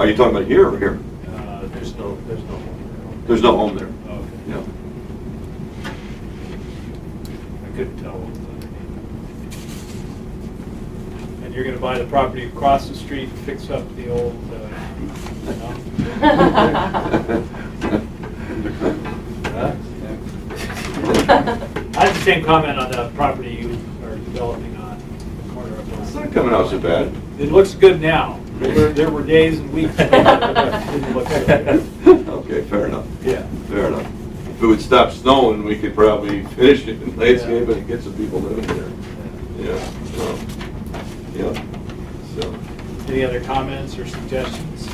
Are you talking about here or here? Uh, There's no, there's no. There's no home there. Okay. Yeah. I couldn't tell what was underneath. And you're gonna buy the property across the street, and fix up the old, uh, no? I have the same comment on the property you are developing on the corner of. It's not coming out so bad. It looks good now. There were, there were days and weeks. when it didn't look so good. Okay, fair enough. Yeah. Fair enough. If it would stop snowing, we could probably finish it and landscape it and get some people living there. Yeah, so, yeah, so. Any other comments or suggestions?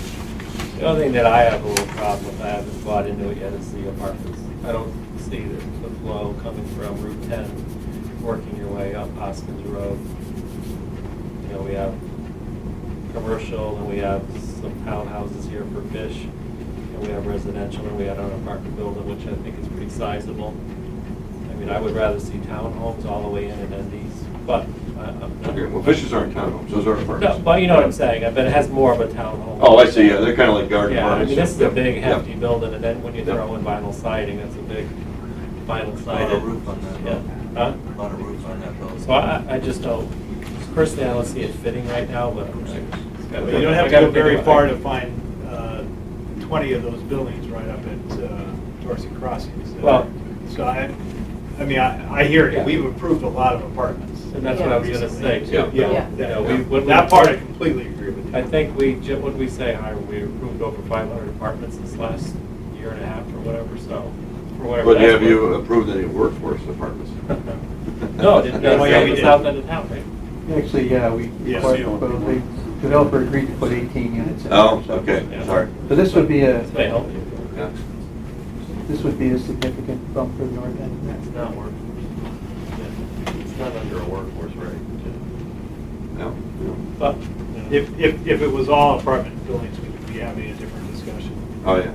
The only thing that I have a little problem with, I haven't bought into it yet, is the apartments. I don't see the the flow coming from Route 10, working your way up Hoskins Road. You know, we have commercial, and we have some townhouses here for fish, and we have residential, and we had an apartment building, which I think is pretty sizable. I mean, I would rather see townhomes all the way in and then these, but I- I'm not. Okay, well, fishes aren't townhomes, those are No, apartments. but you know what I'm saying, I bet it has more of a townhome. Oh, I see, yeah, they're kind of like garden Yeah, I apartments. mean, this is a Yeah, big yeah. hefty building, and then when you Yeah. throw in vinyl siding, that's a big vinyl Not siding. a roof on that Yeah, building. huh? Not a roof on that building. So I, I just don't, personally, I don't see it fitting right now, but. But You don't have to go very far to find uh, 20 of those buildings right up at uh, Dorsey Crossings. Uh, Well- So I, I mean, I, I hear you, Yeah. we've approved a lot of apartments. And that's what I was gonna say, too. Yeah. Yeah, You know, we- yeah. when we- that part I completely agree with you. I think we, Jim, what did we say, Hiram, we approved over five hundred apartments this last year and a half or whatever, so, for whatever. But that's have you worth. approved any workforce apartments? No, didn't, Oh, yeah, we that's did. south end of town, right? Actually, yeah, we, Yeah, but so- the developer agreed to put 18 units in. Oh, so- okay, Yeah. sorry. So this would be a, This may help you. Yeah. this would be a significant bump for the north end. It's not working. It's not under a workforce rate. No, no. But, If, if, if it was all apartment buildings, we'd be having a different discussion. Oh, yeah.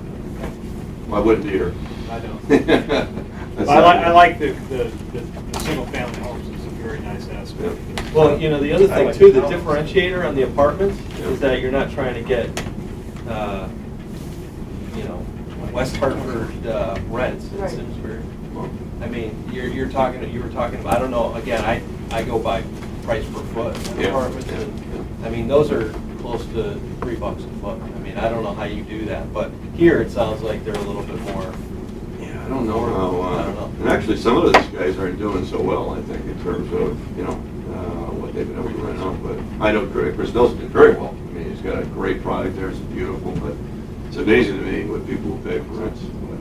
Well, I wouldn't either. I don't. That's I like, not- I like the, the, the the single-family homes, it's a very nice aspect. Well, you know, the other thing too, the differentiator on the apartments Yeah. is that you're not trying to get, uh, you know, West Hartford uh, rents in Right. Simsbury. I mean, you're, you're talking, you were talking about, I don't know, again, I, I go by price per foot in Yeah, apartments. yeah, and, yeah. I mean, those are close to three bucks a foot. I mean, I don't know how you do that, but here it sounds like they're a little bit more, Yeah, I don't know how, I don't know. uh, and actually, some of those guys aren't doing so well, I think, in terms of, you know, uh, what they've been able to rent out, but I know Chris Chris Nelson did very well. I mean, he's got a great product there, it's beautiful, but it's amazing to me what people will pay for rents. but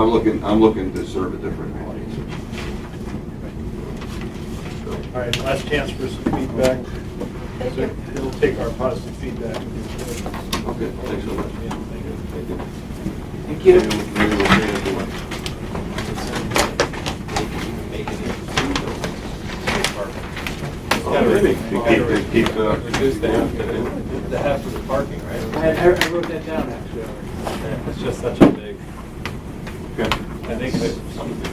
I'm looking, I'm looking to serve a different audience. So, All right, last chance for some feedback. So It'll take our positive feedback. Okay, thanks so much. Yeah, thank you. Thank you. thank Maybe you. we'll- maybe we'll bring it to one. Make it into two buildings, two apartments. Oh, maybe. You keep- you keep, uh, Reduce the half, the the half of the parking, right? I wrote that down, actually. It's just such a big, Okay. I think that.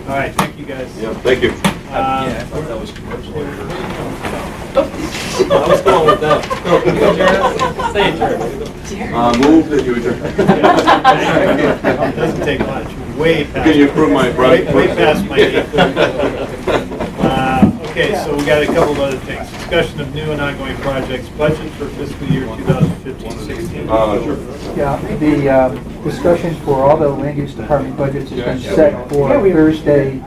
All right, thank you, guys. Yeah, thank you. Uh, Yeah, I thought that was commercial. I I was going with them. Say it, Um, Uh, move that you adjourn. Doesn't take much, way past. Can you approve my Way project? way past my date. date. Uh, Okay, so we got a couple of other things. Discussion of new and ongoing projects, budget for fiscal year 2015-16. Uh, sure. Yeah, the uh, discussion for all the land use department budgets has been Yeah. set for Thursday,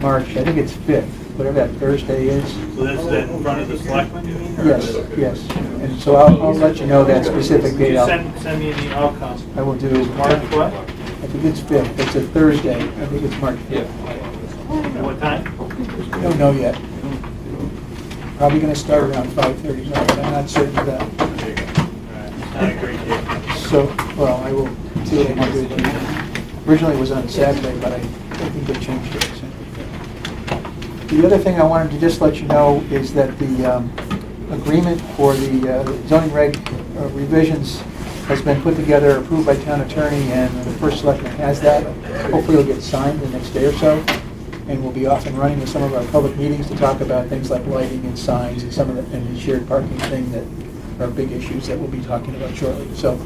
March, I think it's 5th, whatever that Thursday is. So that's that in front of the selectmen? or- Yes, yes. And so I'll, I'll let you know that specific Could date. you I'll- send, send me an email, Council? I will do, March I what? think it's 5th, it's a Thursday, I think it's March 5th. And What time? I Don't know yet. Probably gonna start around five thirty, but I'm not certain of that. Not a great date. So, well, I will see what I can do. but Originally it was on Saturday, but I think they changed it. so. The other thing I wanted to just let you know is that the um, agreement for the uh, zoning reg uh, revisions has been put together, approved by town attorney, and the first selectman has that. Hopefully it'll get signed the next day or so and we'll be off and running with some of our public meetings to talk about things like lighting and signs and some of the, and the shared parking thing that are big issues that we'll be talking about shortly. So